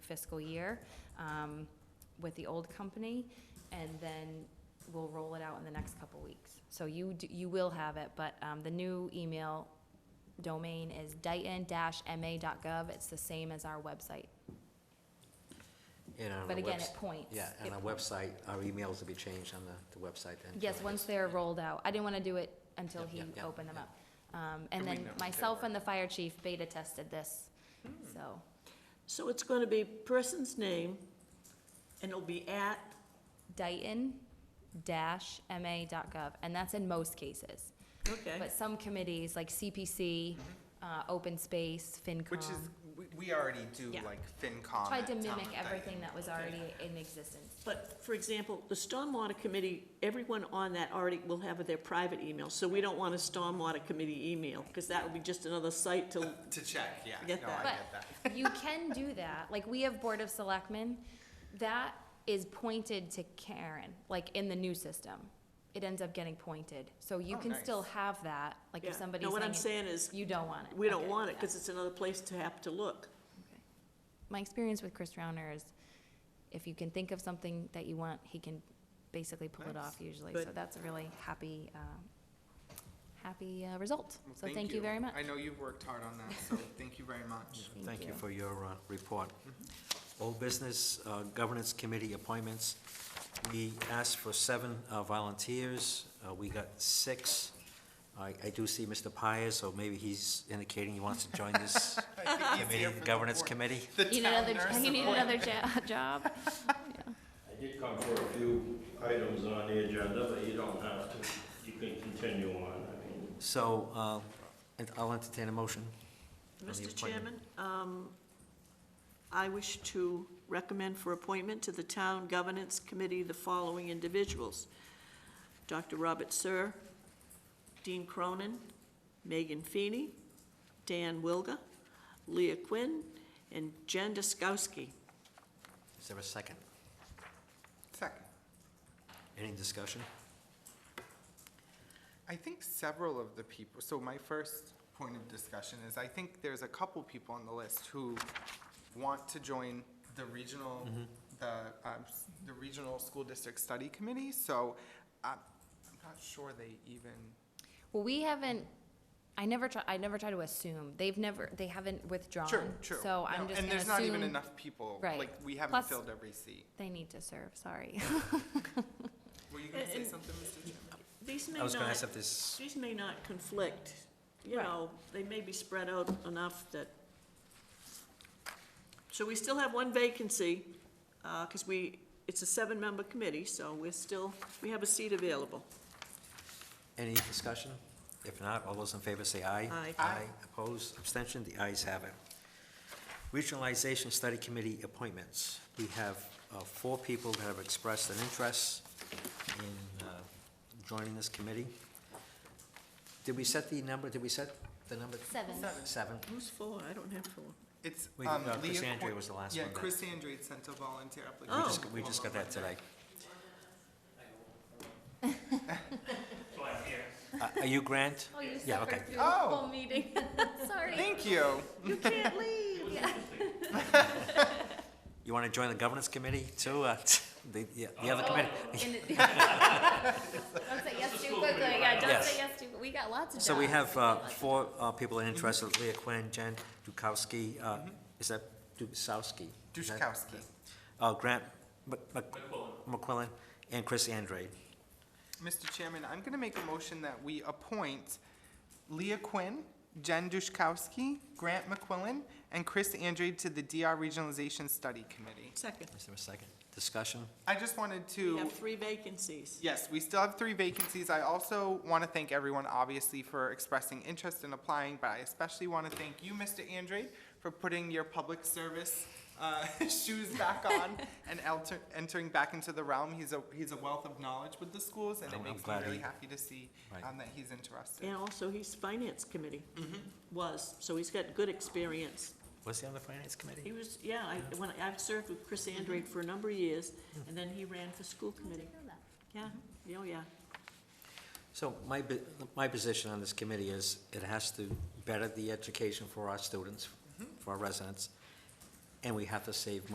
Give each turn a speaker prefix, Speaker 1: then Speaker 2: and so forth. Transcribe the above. Speaker 1: fiscal year um, with the old company, and then we'll roll it out in the next couple weeks. So you, d- you will have it, but um, the new email domain is dighton-ma.gov. It's the same as our website,
Speaker 2: And on
Speaker 1: but
Speaker 2: our
Speaker 1: again,
Speaker 2: webs-
Speaker 1: it points.
Speaker 2: Yeah,
Speaker 1: It
Speaker 2: and our website, our emails will be changed on the, the website then.
Speaker 1: Yes,
Speaker 2: too, I
Speaker 1: once
Speaker 2: guess.
Speaker 1: they're rolled out. I didn't want to do it until
Speaker 2: Yep,
Speaker 1: he
Speaker 2: yep, yep,
Speaker 1: opened them
Speaker 2: yep.
Speaker 1: up. Um, And
Speaker 3: And we
Speaker 1: then
Speaker 3: know Hmm. that
Speaker 1: myself
Speaker 3: we're-
Speaker 1: and the fire chief beta tested this, so,
Speaker 4: So it's going to be person's name, and it'll be at,
Speaker 1: Dighton-ma.gov, and that's in most cases.
Speaker 4: okay,
Speaker 1: But some committees, like CPC, uh,
Speaker 4: Mm-hmm.
Speaker 1: Open Space,
Speaker 3: Which is,
Speaker 1: FinCom,
Speaker 3: we, we already do
Speaker 1: Um, Yeah.
Speaker 3: like FinCom.
Speaker 1: tried
Speaker 3: at
Speaker 1: to
Speaker 3: town
Speaker 1: mimic
Speaker 3: of
Speaker 1: everything
Speaker 3: Dyton.
Speaker 1: that was already in existence.
Speaker 4: but for example, the Stormwater Committee, everyone on that already will have their private email, so we don't want a Stormwater Committee email, because that will be just another site to,
Speaker 3: To check, yeah,
Speaker 4: Get
Speaker 3: no,
Speaker 4: that.
Speaker 3: I
Speaker 1: But
Speaker 3: get that.
Speaker 1: you can do that, like, we have Board of Selectmen, that is pointed to Karen, like, in the new system. It ends up getting pointed, so you
Speaker 3: Oh,
Speaker 1: can still
Speaker 3: nice.
Speaker 1: have that, like,
Speaker 4: yeah.
Speaker 1: if somebody's
Speaker 4: No, what I'm
Speaker 1: hanging,
Speaker 4: saying is,
Speaker 1: you don't want it.
Speaker 4: we don't
Speaker 1: Okay,
Speaker 4: want it,
Speaker 1: yeah.
Speaker 4: because it's another place to have to look.
Speaker 1: My experience with Chris Rauner is if you can think of something that you want, he can basically pull it off usually. So
Speaker 4: Good.
Speaker 1: that's a really happy, um, happy uh, result.
Speaker 3: Well,
Speaker 1: So thank you very much.
Speaker 3: I know you've worked hard on that, so thank you very much.
Speaker 2: Thank you for your uh, report. Old Business uh, Governance Committee appointments. We asked for seven uh, volunteers. Uh, We got six. I I do see Mr. Pires, so maybe he's indicating he wants to join this
Speaker 3: I think he's
Speaker 2: committee,
Speaker 3: here for the
Speaker 2: Governance
Speaker 3: board.
Speaker 2: Committee.
Speaker 3: The
Speaker 1: Need
Speaker 3: town
Speaker 1: another,
Speaker 3: nurse
Speaker 1: you need
Speaker 3: appointment.
Speaker 1: another jo- job?
Speaker 5: I did come for a few items on the agenda, but you don't have to. You can continue on, I mean.
Speaker 2: So uh, and I'll entertain a motion. on the
Speaker 4: Mr. Chairman,
Speaker 2: appointment.
Speaker 4: um, I wish to recommend for appointment to the Town Governance Committee the following individuals. Dr. Robert Sir, Dean Cronin, Megan Feeney, Dan Wilga, Leah Quinn, and Jen Duskowski.
Speaker 2: Is there a second?
Speaker 3: Second.
Speaker 2: Any discussion?
Speaker 3: I think several of the people, so my first point of discussion is, I think there's a couple people on the list who want to join the regional,
Speaker 4: Mm-hmm.
Speaker 3: the, um, s- the Regional School District Study Committee, so I'm, I'm not sure they even,
Speaker 1: Well, we haven't, I never try, I never try to assume. They've never, they haven't withdrawn.
Speaker 3: true, true.
Speaker 1: So I'm
Speaker 3: No,
Speaker 1: just
Speaker 3: And
Speaker 1: gonna
Speaker 3: there's not even
Speaker 1: assume
Speaker 3: enough people,
Speaker 1: Right.
Speaker 3: like, we haven't
Speaker 1: Plus-
Speaker 3: filled every seat.
Speaker 1: they need to serve, sorry.
Speaker 3: Were you gonna say
Speaker 4: And-
Speaker 3: something, Mr. Chairman?
Speaker 4: These may
Speaker 2: I was going to
Speaker 4: not,
Speaker 2: ask if this,
Speaker 4: these may not conflict, you
Speaker 1: Right.
Speaker 4: know, they may be spread out enough that. So we still have one vacancy, uh, cause we, it's a seven-member committee, so we're still, we have a seat available.
Speaker 2: any discussion? If not, all those in favor say aye.
Speaker 4: Aye. Aye.
Speaker 2: Aye, opposed, abstention, the ayes have it. Regionalization Study Committee appointments. We have uh, four people that have expressed an interest in uh, joining this committee. Did we set the number, did we set the number?
Speaker 1: Seven.
Speaker 2: Seven.
Speaker 4: Who's four? I don't have four.
Speaker 3: It's,
Speaker 2: We-
Speaker 3: um,
Speaker 2: uh, Chris
Speaker 3: Leah
Speaker 2: Andre
Speaker 3: Qu-
Speaker 2: was the last
Speaker 3: Yeah,
Speaker 2: one that-
Speaker 3: Chris Andrade sent a volunteer
Speaker 2: We
Speaker 3: application.
Speaker 2: just, we just got that today. Uh, Are you Grant?
Speaker 1: Oh, you
Speaker 2: Yeah, okay.
Speaker 1: suffered through the
Speaker 3: Oh.
Speaker 1: whole meeting. Sorry.
Speaker 3: Thank you.
Speaker 4: You can't leave.
Speaker 2: You want to join the governance committee too? Uh, The, yeah, the other committee?
Speaker 1: In it- Don't say yes too quickly, yeah, don't
Speaker 2: Yes.
Speaker 1: say yes too, we got lots of
Speaker 2: So we
Speaker 1: jobs.
Speaker 2: have uh, four uh, people in interest, Leah Quinn, Jen Dukowski, uh, is that Dukowski? Is that-
Speaker 3: Duszkowski.
Speaker 2: Uh, Grant Mc- Mc- McQuillan, and Chris Andrade.
Speaker 3: Mr. Chairman, I'm going to make a motion that we appoint Leah Quinn, Jen Duszkowski, Grant McQuillan, and Chris Andrade to the DR Regionalization Study Committee.
Speaker 4: Second.
Speaker 2: Is there a second? Discussion?
Speaker 3: I just wanted
Speaker 4: We
Speaker 3: to,
Speaker 4: have three vacancies.
Speaker 3: yes, we still have three vacancies. I also want to thank everyone, obviously, for expressing interest in applying, but I especially want to thank you, Mr. Andrade, for putting your public service uh, shoes back on and alter- entering back into the realm. He's a, he's a wealth of knowledge with the schools, and
Speaker 2: Oh, I'm-
Speaker 3: it
Speaker 2: I'm
Speaker 3: makes me
Speaker 2: glad
Speaker 3: really
Speaker 2: he-
Speaker 3: happy to see
Speaker 2: Right.
Speaker 3: um, that he's interested.
Speaker 4: And also, he's Finance Committee. Was, so he's got good experience.
Speaker 2: Was he on the finance
Speaker 4: He
Speaker 2: committee?
Speaker 4: was, yeah, I, when, I've served with Chris Andrade for a number of years, and then he ran for school committee. Yeah, oh, yeah.
Speaker 2: So my, bi- my position on this committee is it has to better the education for our students, for our residents, and we have to save money.